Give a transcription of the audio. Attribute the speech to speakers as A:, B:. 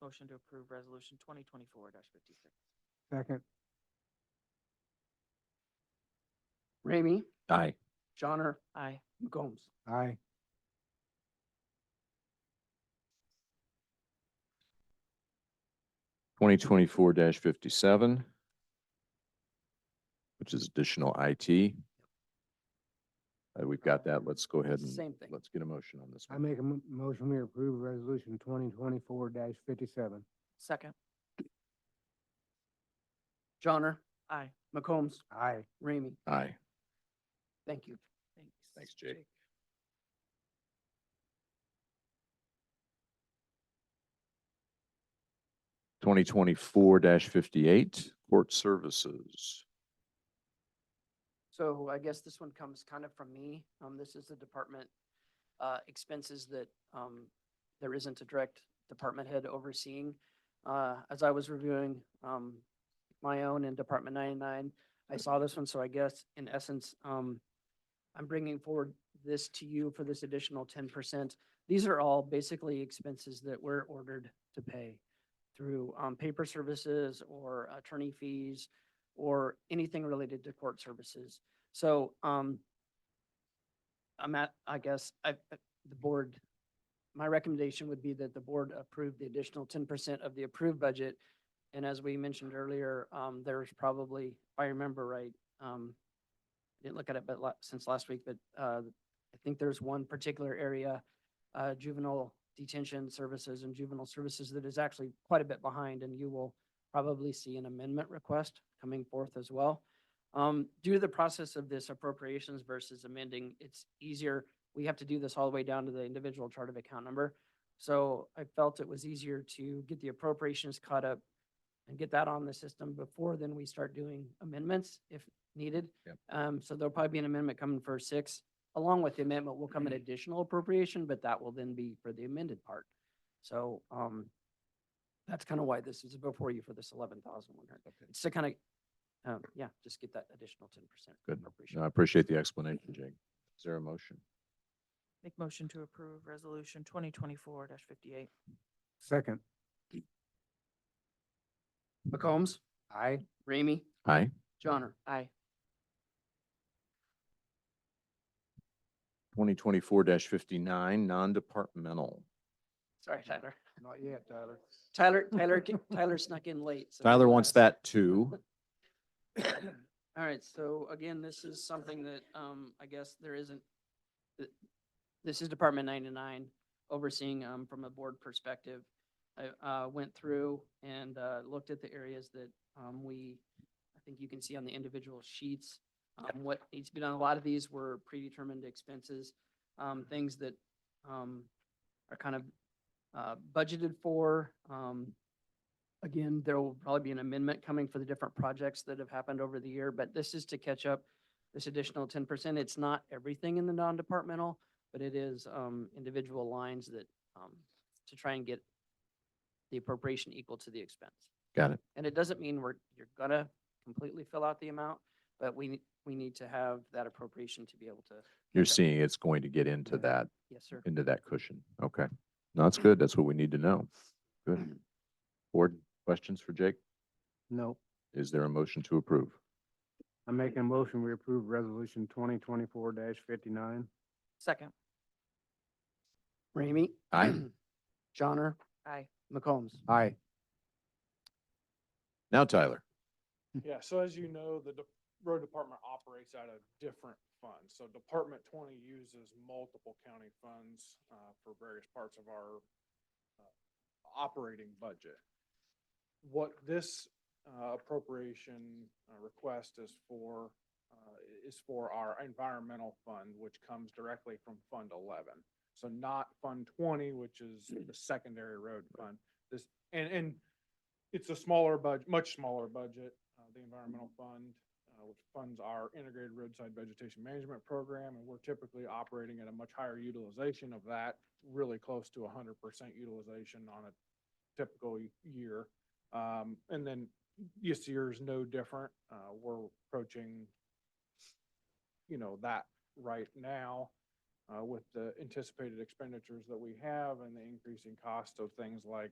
A: Motion to approve resolution twenty twenty-four fifty-six.
B: Second.
C: Ramey,
D: Aye.
C: Johnner,
A: Aye.
C: McCombs.
B: Aye.
D: twenty twenty-four fifty-seven, which is additional IT. Uh, we've got that. Let's go ahead and,
C: Same thing.
D: let's get a motion on this
B: I
D: one.
B: make a mo- motion, we approve resolution twenty twenty-four fifty-seven.
A: Second.
C: Johnner,
A: Aye.
C: McCombs,
B: Aye.
C: Ramey.
D: Aye.
C: Thank you.
A: Thanks.
D: Thanks, Jake. Twenty twenty-four fifty-eight, court services.
C: So I guess this one comes kind of from me. Um, this is the department, uh, expenses that, um, there isn't a direct department head overseeing. Uh, as I was reviewing, um, my own and Department ninety-nine, I saw this one, so I guess in essence, um, I'm bringing forward this to you for this additional ten percent. These are all basically expenses that we're ordered to pay through, um, paper services or attorney fees or anything related to court services. So, um, I'm at, I guess, I, I- the board, my recommendation would be that the board approve the additional ten percent of the approved budget. And as we mentioned earlier, um, there's probably, if I remember right, um, I didn't look at it, but la- since last week, but, uh, I think there's one particular area, uh, juvenile detention services and juvenile services that is actually quite a bit behind and you will probably see an amendment request coming forth as well. Um, due to the process of this appropriations versus amending, it's easier, we have to do this all the way down to the individual chart of account number. So I felt it was easier to get the appropriations caught up and get that on the system before then we start doing amendments if needed.
D: Yep.
C: Um, so there'll probably be an amendment coming for six. Along with the amendment will come an
D: Mm-hmm.
C: additional appropriation, but that will then be for the amended part. So, um, that's kind of why this is before you for this eleven thousand one hundred. It's to kind of, um, yeah, just get that additional ten percent.
D: Good. No, I appreciate the explanation, Jake. Is there a motion?
A: Make motion to approve resolution twenty twenty-four fifty-eight.
B: Second.
C: McCombs,
B: Aye.
C: Ramey,
D: Aye.
C: Johnner.
A: Aye.
D: Twenty twenty-four fifty-nine, non-departmental.
C: Sorry, Tyler.
B: Not yet, Tyler.
C: Tyler, Tyler, ca- Tyler snuck in late. so
D: Tyler wants
C: that's-
D: that too.
C: All right, so again, this is something that, um, I guess there isn't, th- this is Department ninety-nine overseeing, um, from a board perspective. I, uh, went through and, uh, looked at the areas that, um, we, I think you can see on the individual sheets, um, what needs to be done. A lot of these were predetermined expenses, um, things that, um, are kind of, uh, budgeted for, um, Again, there will probably be an amendment coming for the different projects that have happened over the year, but this is to catch up this additional ten percent. It's not everything in the non-departmental, but it is um individual lines that um to try and get the appropriation equal to the expense.
D: Got it.
C: And it doesn't mean we're, you're gonna completely fill out the amount, but we, ne- we need to have that appropriation to be able to.
D: You're
C: catch up.
D: seeing it's going to get into that,
C: Yes, sir.
D: into that cushion. Okay. No, that's good. That's what we need to know. Good. Board, questions for Jake?
B: No,
D: Is there a motion to approve?
B: I'm making a motion, we approve resolution twenty twenty-four fifty-nine.
A: Second.
C: Ramey?
D: Aye.
C: Johnner?
A: Aye.
C: McCombs?
B: Aye.
D: Now, Tyler,
E: Yeah, so as you know, the de- road department operates out of different funds. So Department twenty uses multiple county funds, uh, for various parts of our, uh, operating budget. What this, uh, appropriation, uh, request is for, uh, is for our environmental fund, which comes directly from Fund eleven. So not Fund twenty, which is the secondary road fund. This, and, and it's a smaller budget, much smaller budget, uh, the environmental fund, uh, which funds our integrated roadside vegetation management program, and we're typically operating at a much higher utilization of that, really close to hundred percent utilization on a typical y- year. Um, and then this year is no different. Uh, we're approaching, you know, that right now uh, with the anticipated expenditures that we have and the increasing cost of things like